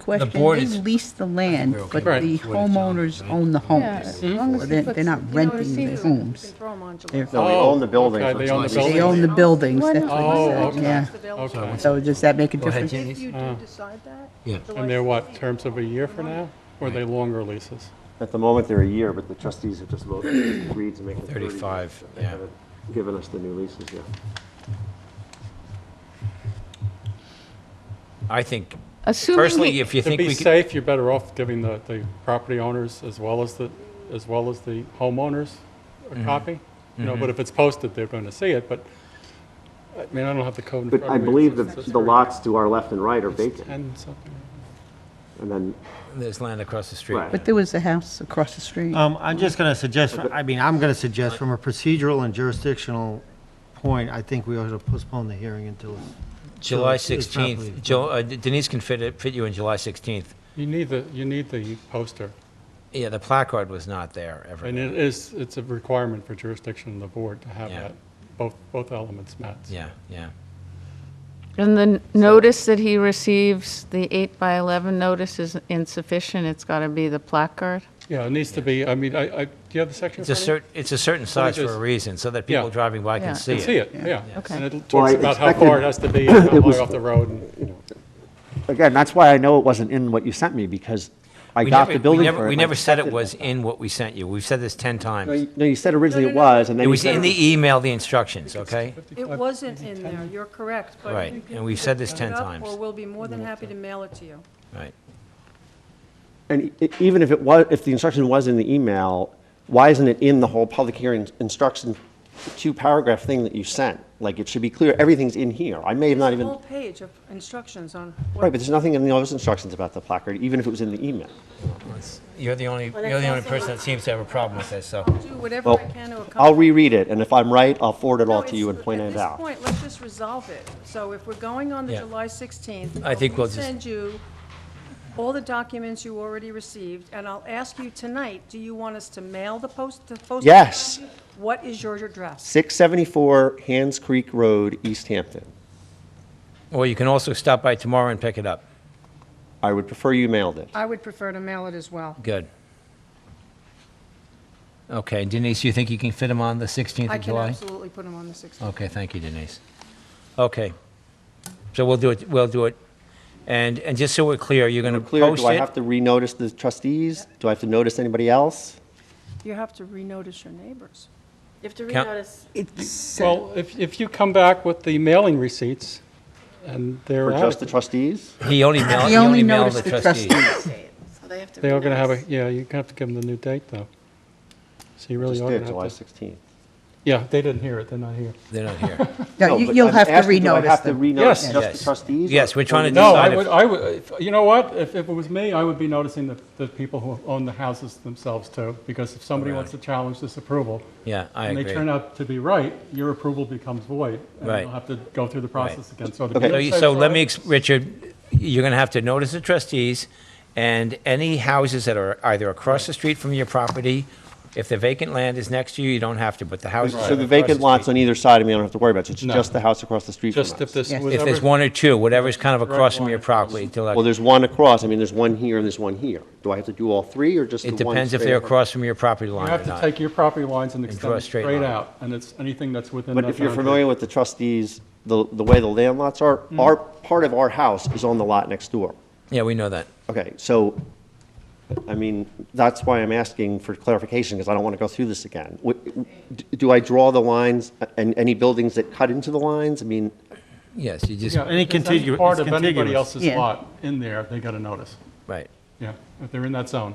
question. board They is- lease the land, but Right. the homeowners own the homes. So They're they're not renting the homes. They're- No, we own the building. Oh, okay, so they it's own not- the They building. own the buildings, that's Oh, what okay. they said, yeah. Okay. So uh, does that make a Go ahead, difference? Jenny. If you do decide that. Yeah. the And they're what, licensee- terms of a year for now? Or are they longer leases? At the moment, they're a year, but the trustees have just voted, agreed to make it 30 years. 35, They yeah. haven't Given us the new leases yet. I think, Assuming, personally, he- if you To think be we could, safe, you're better off giving the, the property owners as well as the, as well as the homeowners Mm-hmm. a copy. You know, but if it's posted, they're going to see it, but, I mean, I don't have the code in front But of me. I believe It's- that it's the lots to our left and right are vacant, 10 something. and then, there's land across the street. Right. But there was a house across the street. Um, I'm just gonna suggest, I mean, I'm gonna suggest from a procedural and jurisdictional point, I think we ought to postpone the hearing until, July So it's- it's not 16th, believable. Jo- uh, Denise can fit it, fit you in July 16th. You need the, you need the poster. Yeah, the placard was not there ever. And it is, it's a requirement for jurisdiction of the board to have Yeah. that, both, both elements met. Yeah, yeah. and the n- notice that he receives, the eight by 11 notice is insufficient, it's got to be the placard. Yeah, it needs to be, I mean, I, I, do you have the section? in It's a front of you? cer, it's a certain size for a just- reason, so that people Yeah. driving by Yeah. can see it. See it, yeah. Okay. And it Well, I talks about how expected- far it has to be, and how it was- far off the road, and, you know. again, that's why I know it wasn't in what you sent me, because I We got never- the building we never, permit. we and I never said it accepted was in what we sent you. We've said this 10 No, times. you- no, you said originally it was, and then It you was said. in the email, the instructions, okay? It wasn't in there, you're correct. but Right, you can and we've either said this pick 10 it up times. Or we'll be more than happy to mail it to you. Right. And e- even if it was, if the instruction was in the email, why isn't it in the whole public hearing instruction, two-paragraph thing that you sent? Like, it should be clear, everything's in here. I may have not even, Whole page of instructions on right, but what there's nothing in those instructions about the placard, even if it was in the email. You're the only, you're the only person that seems to have a problem with this, so. do whatever Well, I can to accomplish. I'll reread it, and if I'm right, I'll forward it No, all to it's- you and point it At this out. point, let's just resolve it. So if we're going on the Yeah. July 16th. I I'll think we'll just- Send you all the documents you already received, and I'll ask you tonight, do you want us to mail the post, the post? Yes. What is your address? 674 Hands Creek Road, East Hampton. Or you can also stop by tomorrow and pick it up. I would prefer you mailed it. I would prefer to mail it as well. Good. Okay, Denise, you think you can fit them on the 16th I of can July? absolutely put them on the 16th. Okay, thank you, Denise. Okay. So we'll do it, we'll do it. And, and just so we're clear, you're going to Clear, post do I it? have to renotice the trustees? Do I have to notice anybody else? Oh. You have to renotice your neighbors. You have to Count- renotice. It's, Well, if, if you come back with the mailing receipts and they're Or just the adequate, trustees? He only mailed, He only he only mailed the noticed the trustees. trustees. So they have to. they are going to have a, renotice. yeah, you have to give them the new date, though. So you really Just are did, going July to have to. 16th. Yeah, they didn't hear it, they're not here. They're not here. No, No, you- but you'll I'm have to asking, do I renotice have to them. renotice Yes. just Yes. the trustees? Yes, or- we're trying to or No, Decide I if- would, I would, you know what? If, if it was me, I would be noticing the, the people who own the houses themselves too, because if somebody wants to challenge this approval, Yeah, I and they agree. turn out to be right, your approval becomes void. And Right. you'll have to go through the process again. So the Okay. So, people you- say so it's let all me, right. ex- Richard, you're going to have to notice the trustees, and any houses that are either across the street from your property, if the vacant land is next to you, you don't have to, but the houses. that So are the across vacant street- lots on either side of me, I don't have to worry about, so it's No. just the house across the street from Just if us? this Yes. was If there's ever- one or two, whatever's kind of Correct across from one. your property, till Well, that, there's one across, I mean, there's one here and there's one here. Do I have to do all three, or just the it one? depends if straight they're up? across from your property You line or have to not. take your property lines and draw extend a them straight straight line. out, and it's anything that's within that But if boundary. you're familiar with the trustees, the, the way the land lots are, Mm. our, part of our house is on the lot next door. Yeah, we know that. Okay, so, I mean, that's why I'm asking for clarification, because I don't want to go through this again. Wh- d- Do I draw the lines and any buildings that cut into the lines? I mean, Yes, you just, Yeah, Any if there's contigu- Part it's of anybody contiguous. else's Yeah. lot in there, they got a notice. right. Yeah, if they're in that zone,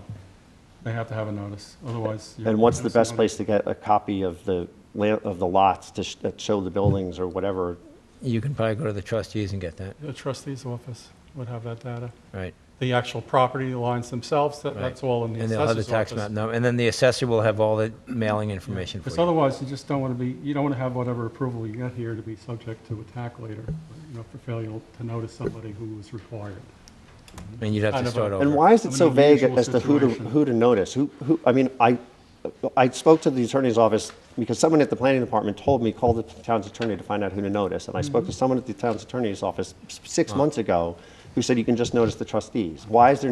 they have to have a notice, otherwise. you're and what's the noticing best on- place to get a copy of the, la- of the lots to sh- that show the buildings or whatever? You can probably go to the trustees and get that, The trustee's office would have that data. right. The actual property lines themselves, that, Right. that's all in the And they'll have the assessor's tax office. map, number, and then the assessor will have all the mailing information for Because you. otherwise, you just don't want to be, you don't want to have whatever approval you got here to be subject to attack later, you know, for failure to notice somebody who was required. And you'd have kind to of a- start over. And why is An it so vague unusual as to who to, situation. who to notice? Who, who, I mean, I, I spoke to the attorney's office because someone at the planning department told me, call the town's attorney to find out who to notice. And I spoke to someone at the town's attorney's office s- six months ago who said you can just notice the trustees. Why is there